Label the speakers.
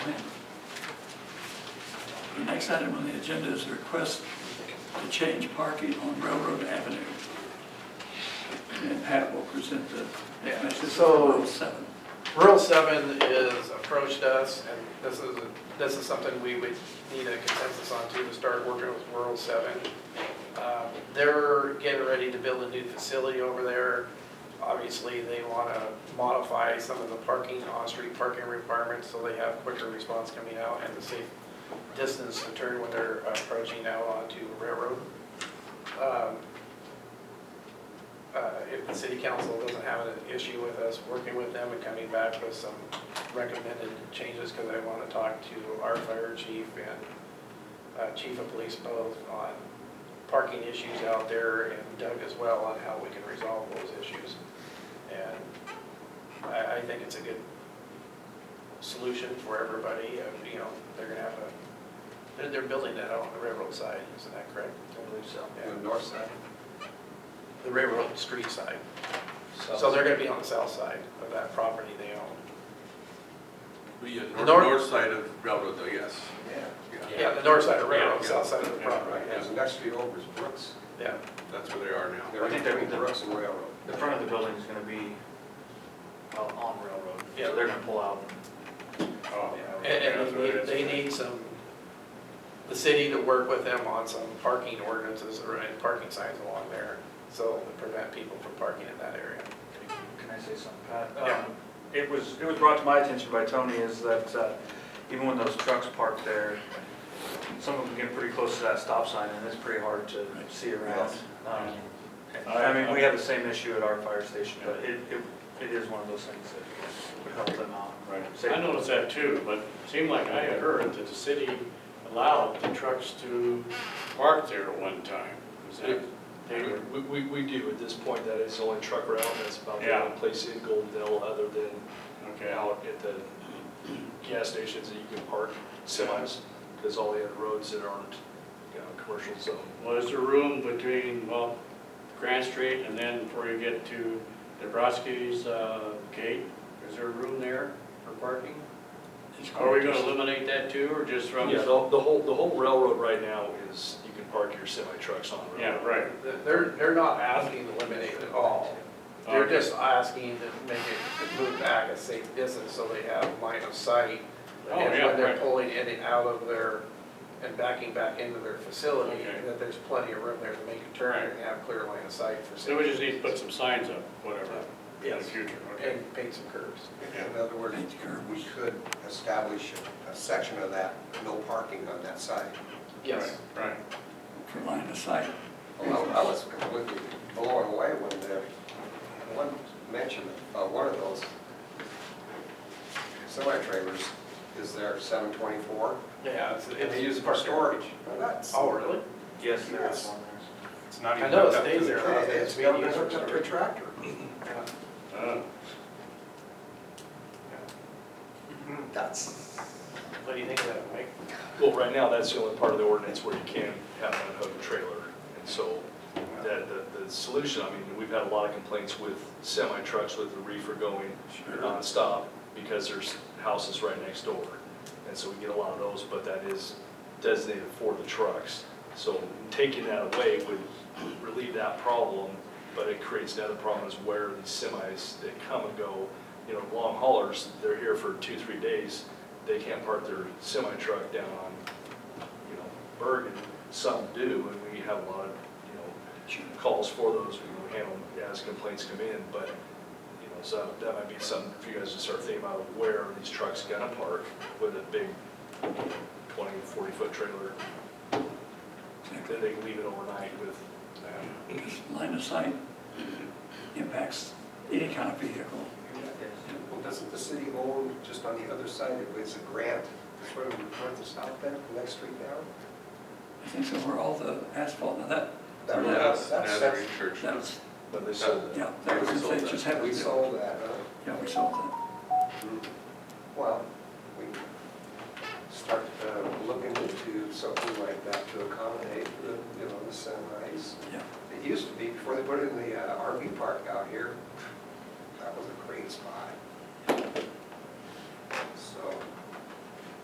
Speaker 1: next item on the agenda is a request to change parking on Railroad Avenue. And Pat will present the,
Speaker 2: Yeah,
Speaker 1: this is
Speaker 2: so-
Speaker 1: Route 7.
Speaker 2: Rural Seven is approached us, and this is, this is something we would need a consensus on too, to start working with Rural Seven. Um, They're getting ready to build a new facility over there. Obviously, they want to modify some of the parking, on-street parking requirements, so they have quicker response coming out and the safe distance to turn when they're approaching now onto Railroad. Um, uh, if the city council doesn't have an issue with us working with them and coming back with some recommended changes, because I want to talk to our fire chief and uh, chief of police both on parking issues out there, and Doug as well on how we can resolve those issues. And I, I think it's a good solution for everybody, uh, you know, they're gonna have a, they're, they're building that out on the railroad side, isn't that correct?
Speaker 3: I believe so.
Speaker 2: Yeah.
Speaker 3: The north side.
Speaker 2: The railroad street side. So they're gonna be on the south side of that property they own.
Speaker 4: The
Speaker 2: The
Speaker 4: uh,
Speaker 2: north-
Speaker 4: north, north side of railroad, though, yes.
Speaker 3: Yeah.
Speaker 4: Yeah,
Speaker 2: Yeah, the north side of railroad,
Speaker 4: Yeah.
Speaker 2: south side of the
Speaker 4: Yeah,
Speaker 2: property,
Speaker 3: Right,
Speaker 2: yeah.
Speaker 3: there's the next street over is Brooks.
Speaker 2: yeah.
Speaker 4: that's where they are now.
Speaker 3: They're
Speaker 5: I think they're-
Speaker 3: between Brooks and Railroad.
Speaker 5: The front of the building is gonna be uh, on railroad,
Speaker 2: Yeah.
Speaker 5: so they're gonna pull out.
Speaker 4: Oh,
Speaker 2: And, and they need, they need some, the city to work with them on some parking ordinances or and parking signs along there, so to prevent people from parking in that area.
Speaker 5: Can I say something, Pat?
Speaker 2: Yeah.
Speaker 5: Um, It was, it was brought to my attention by Tony is that uh, even when those trucks park there, some of them get pretty close to that stop sign and it's pretty hard to see around. Um, I mean, we have the same issue at our fire station, but it, it- it is one of those things that would help them out.
Speaker 6: Right.
Speaker 5: Save-
Speaker 6: I noticed that too, but it seemed like I had heard that the city allowed the trucks to park there at one time. Was that, they were,
Speaker 7: We, we, we do at this point, that is the only truck route, and that's about the
Speaker 6: Yeah.
Speaker 7: only place in Goldendale other than
Speaker 6: okay, I'll-
Speaker 7: out at the gas stations that you can park semis, because all the other roads that aren't, you know, commercial zone.
Speaker 6: was there room between, well, Grand Street and then before you get to Dobrowski's uh, gate? Is there room there for parking? Are we gonna eliminate that too, or just from?
Speaker 7: Yeah, the, the whole, the whole railroad right now is, you can park your semi trucks on the
Speaker 6: Yeah,
Speaker 7: railroad.
Speaker 6: right.
Speaker 2: They're, they're not asking to eliminate it all. They're
Speaker 6: Okay.
Speaker 2: just asking to make it, to move back a safe distance so they have line of sight.
Speaker 6: Oh,
Speaker 2: And
Speaker 6: yeah,
Speaker 2: when they're
Speaker 6: right.
Speaker 2: pulling in and out of their, and backing back into their facility,
Speaker 6: Okay.
Speaker 2: that there's plenty of room there to make a turn and have clear line of sight for
Speaker 6: So we
Speaker 2: safety.
Speaker 6: just need to put some signs up, whatever, in the
Speaker 2: Yes.
Speaker 6: future, okay?
Speaker 2: And paint some curves.
Speaker 3: In other words, we could establish a section of that, no parking on that side.
Speaker 2: Yes.
Speaker 6: Right, right.
Speaker 1: for line of sight.
Speaker 3: Well, I was completely blown away when the, one mentioned, uh, one of those semi-trailers is there seven twenty-four,
Speaker 2: Yeah, it's,
Speaker 3: and they use it for storage. Well, that's.
Speaker 2: Oh, really?
Speaker 5: Yes, there
Speaker 3: Yes.
Speaker 5: is one there.
Speaker 4: It's not
Speaker 2: I
Speaker 4: even
Speaker 2: know it
Speaker 4: hooked up to
Speaker 2: stays
Speaker 4: the-
Speaker 2: there.
Speaker 3: Yeah, It's
Speaker 2: Maybe
Speaker 3: got it
Speaker 2: use it
Speaker 3: hooked up to a tractor.
Speaker 6: Uh,
Speaker 3: That's,
Speaker 2: What do you think of that, Mike?
Speaker 7: Well, right now, that's the only part of the ordinance where you can have an unhooked trailer. And so that, the, the solution, I mean, we've had a lot of complaints with semi trucks with the reefer going nonstop because there's houses right next door. And so we get a lot of those, but that is designated for the trucks. So taking that away would relieve that problem, but it creates another problem is where these semis that come and go, you know, long haulers, they're here for two, three days, they can't park their semi truck down on, you know, Bergen. Some do, and we have a lot of, you know, calls for those, we handle them as complaints come in, but, you know, so that might be something for you guys to start thinking about, where are these trucks gonna park with a big 20, 40-foot trailer,
Speaker 1: Exactly.
Speaker 7: then they can leave it overnight with that.
Speaker 1: Because Line of sight impacts any kind of vehicle.
Speaker 3: well, doesn't the city own just on the other side, it was a grant, sort of north and south bend, the next street down?
Speaker 1: I think so where all the asphalt, now that,
Speaker 3: That-
Speaker 1: Yeah,
Speaker 4: That's,
Speaker 3: That's,
Speaker 4: that's
Speaker 3: that's,
Speaker 4: church.
Speaker 1: that was,
Speaker 7: But they sold that.
Speaker 1: yeah, that was,
Speaker 4: We sold
Speaker 1: they
Speaker 4: that.
Speaker 1: just had,
Speaker 3: we
Speaker 1: yeah,
Speaker 3: sold that, huh?
Speaker 1: we sold that.
Speaker 3: Well, we start uh, looking into something like that to accommodate the, you know, the semis.
Speaker 1: Yeah.
Speaker 3: It used to be, before they put in the uh, RV park out here, that was a great spot.